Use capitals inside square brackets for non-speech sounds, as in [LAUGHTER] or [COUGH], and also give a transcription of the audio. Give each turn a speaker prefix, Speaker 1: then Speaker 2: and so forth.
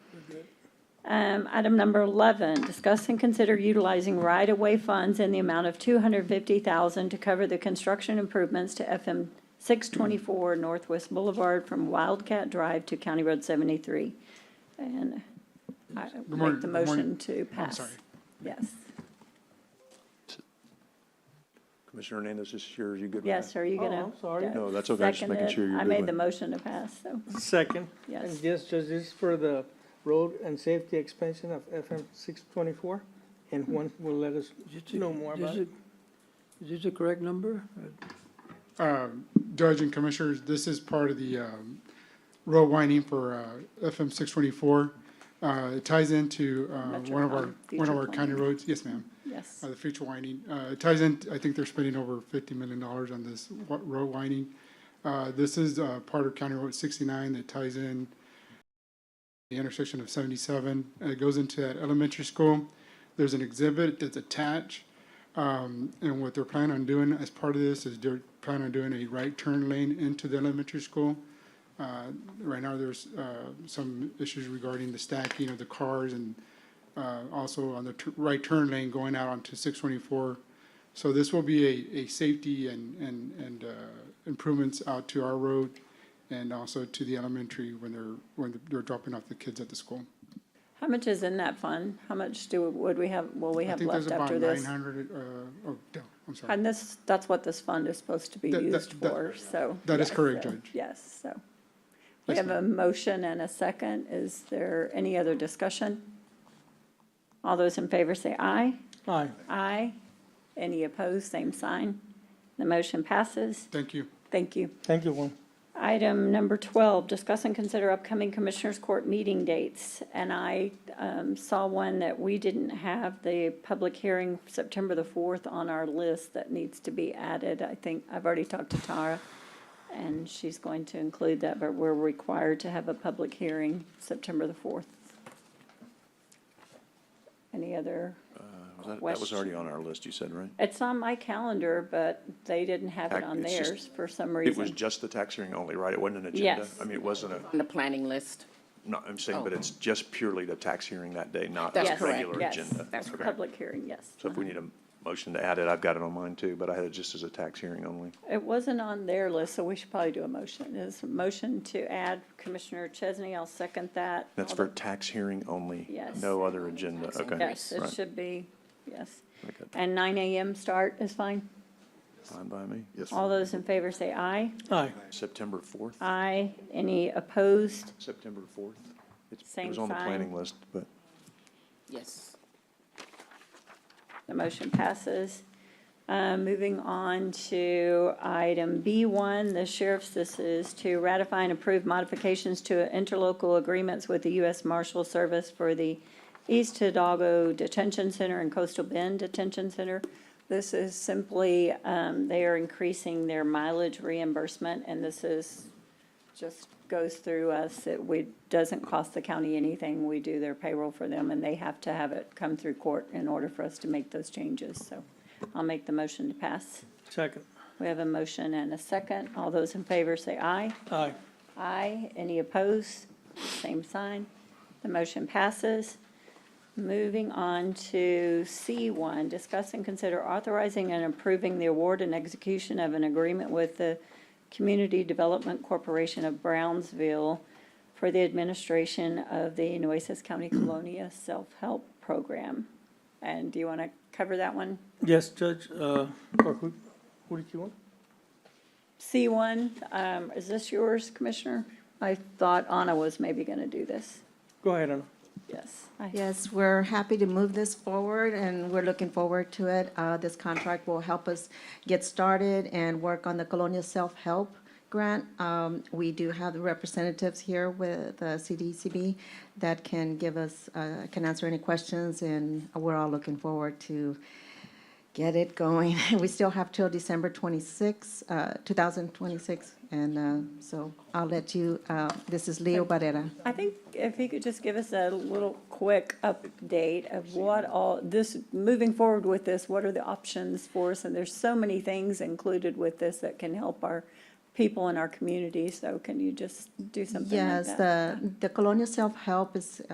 Speaker 1: Um, item number eleven, discuss and consider utilizing right-of-way funds in the amount of two hundred fifty thousand to cover the construction improvements to FM six twenty-four Northwest Boulevard from Wildcat Drive to County Road seventy-three. And I
Speaker 2: morning,
Speaker 1: make the
Speaker 2: good morning.
Speaker 1: motion to
Speaker 2: I'm
Speaker 1: pass.
Speaker 2: sorry.
Speaker 1: Yes,
Speaker 3: Commissioner Hernandez, this is yours, you good with that?
Speaker 1: yes, are you gonna?
Speaker 4: Oh, I'm sorry.
Speaker 1: yeah,
Speaker 3: No, that's okay, I'm just
Speaker 1: second
Speaker 3: making
Speaker 1: it?
Speaker 3: sure you're
Speaker 1: I
Speaker 3: good
Speaker 1: made
Speaker 3: with
Speaker 1: the
Speaker 3: it.
Speaker 1: motion to pass, so,
Speaker 4: Second.
Speaker 1: yes.
Speaker 4: And yes, Judge, this is for the road and safety expansion of FM six twenty-four, and Juan will let us know more about it.
Speaker 5: Is this the correct number?
Speaker 2: Um, Judge and Commissioners, this is part of the um, road winding for uh, FM 624. Uh, It ties into uh, one of
Speaker 1: Metroplan,
Speaker 2: our, one of
Speaker 1: future
Speaker 2: our county
Speaker 1: planning.
Speaker 2: roads. Yes, ma'am.
Speaker 1: Yes,
Speaker 2: Uh, The future winding, Uh, it ties in, I think they're spending over $50 million on this wa- road winding. Uh, This is uh, part of County Road 69 that ties in the intersection of 77. and It goes into that elementary school. There's an exhibit that's attached. Um, And what they're planning on doing as part of this is they're planning on doing a right turn lane into the elementary school. Uh, Right now, there's uh, some issues regarding the stacking of the cars and uh, also on the tu- right turn lane going out onto 624. So this will be a, a safety and, and, and uh, improvements out to our road and also to the elementary when they're, when they're dropping off the kids at the school.
Speaker 1: how much is in that fund? How much do, would we have, will we
Speaker 2: I
Speaker 1: have
Speaker 2: think there's
Speaker 1: left
Speaker 2: about
Speaker 1: after this?
Speaker 2: 900, uh, oh, no, I'm sorry.
Speaker 1: And this, that's what this fund is supposed to be
Speaker 2: That- that-
Speaker 1: used
Speaker 2: that-
Speaker 1: for, so.
Speaker 2: that is
Speaker 1: yes,
Speaker 2: correct,
Speaker 1: so-
Speaker 2: Judge.
Speaker 1: Yes, so. We
Speaker 2: Yes,
Speaker 1: have a motion and a second. Is there any other discussion? All those in favor say aye.
Speaker 4: Aye.
Speaker 1: Aye. Any opposed, same sign. The motion passes.
Speaker 2: Thank you.
Speaker 1: Thank you.
Speaker 4: Thank you, Juan.
Speaker 1: Item number 12, discuss and consider upcoming Commissioners Court meeting dates. And I um, saw one that we didn't have, the public hearing, September the 4th, on our list that needs to be added. I think, I've already talked to Tara, and she's going to include that, but we're required to have a public hearing September the 4th. Any other,
Speaker 3: Was That that was already on our list, you said, right?
Speaker 1: it's on my calendar, but they didn't have it
Speaker 3: Heck,
Speaker 1: on
Speaker 3: it's just-
Speaker 1: theirs for some
Speaker 3: It was
Speaker 1: reason.
Speaker 3: just the tax hearing only, right? It wasn't an agenda?
Speaker 1: Yes.
Speaker 3: I mean, it wasn't a,
Speaker 6: on the planning list.
Speaker 3: no, I'm saying, but
Speaker 6: Oh.
Speaker 3: it's just purely the tax hearing that day, not
Speaker 6: That's
Speaker 3: a
Speaker 1: Yes,
Speaker 6: correct.
Speaker 3: regular
Speaker 1: yes,
Speaker 3: agenda.
Speaker 6: that's
Speaker 3: Okay.
Speaker 6: correct.
Speaker 1: Public hearing, yes.
Speaker 3: So if we need a motion to add it, I've got it on mine too, but I had it just as a tax hearing only.
Speaker 1: It wasn't on their list, so we should probably do a motion. Is a motion to add Commissioner Chesney, I'll second that.
Speaker 3: That's for tax hearing only?
Speaker 1: Yes.
Speaker 3: No other agenda, okay.
Speaker 1: Yes, it
Speaker 3: Right.
Speaker 1: should be, yes.
Speaker 3: Okay.
Speaker 1: And nine AM start is fine.
Speaker 3: Fine by me? Yes.
Speaker 1: All those in favor say aye.
Speaker 4: Aye.
Speaker 3: September 4th?
Speaker 1: Aye. Any opposed?
Speaker 3: September 4th? It's- It
Speaker 1: Same
Speaker 3: was on the
Speaker 1: sign.
Speaker 3: planning list, but
Speaker 6: Yes.
Speaker 1: The motion passes. Uh, Moving on to item B1, the sheriff's, this is to ratify and approve modifications to interlocal agreements with the U.S. Marshal Service for the East Hidalgo Detention Center and Coastal Bend Detention Center. This is simply, um, they are increasing their mileage reimbursement, and this is, just goes through us. It we, doesn't cost the county anything. We do their payroll for them, and they have to have it come through court in order for us to make those changes. So I'll make the motion to pass.
Speaker 4: Second.
Speaker 1: We have a motion and a second. All those in favor say aye.
Speaker 4: Aye.
Speaker 1: Aye. Any opposed? Same sign. The motion passes. Moving on to C1, discuss and consider authorizing and approving the award and execution of an agreement with the Community Development Corporation of Brownsville for the administration of the Nueces County Colonia Self-Help Program. And do you want to cover that one?
Speaker 4: Yes, Judge, uh, or who, who did you want?
Speaker 1: C1, um, is this yours, Commissioner? I thought Anna was maybe going to do this.
Speaker 4: Go ahead, Anna.
Speaker 1: Yes. I-
Speaker 7: Yes, we're happy to move this forward, and we're looking forward to it. Uh, This contract will help us get started and work on the Colonial Self-Help Grant. Um, We do have the representatives here with uh, the CDCB that can give us, uh, can answer any questions, and we're all looking forward to get it going. [LAUGHS] We still have till December 26, uh, 2026, and uh, so I'll let you, uh, this is Leo Barrera.
Speaker 1: I think if he could just give us a little quick update of what all, this, moving forward with this, what are the options for us? And there's so many things included with this that can help our people in our community, so can you just do something like that?
Speaker 7: Yes, the, the Colonial Self-Help is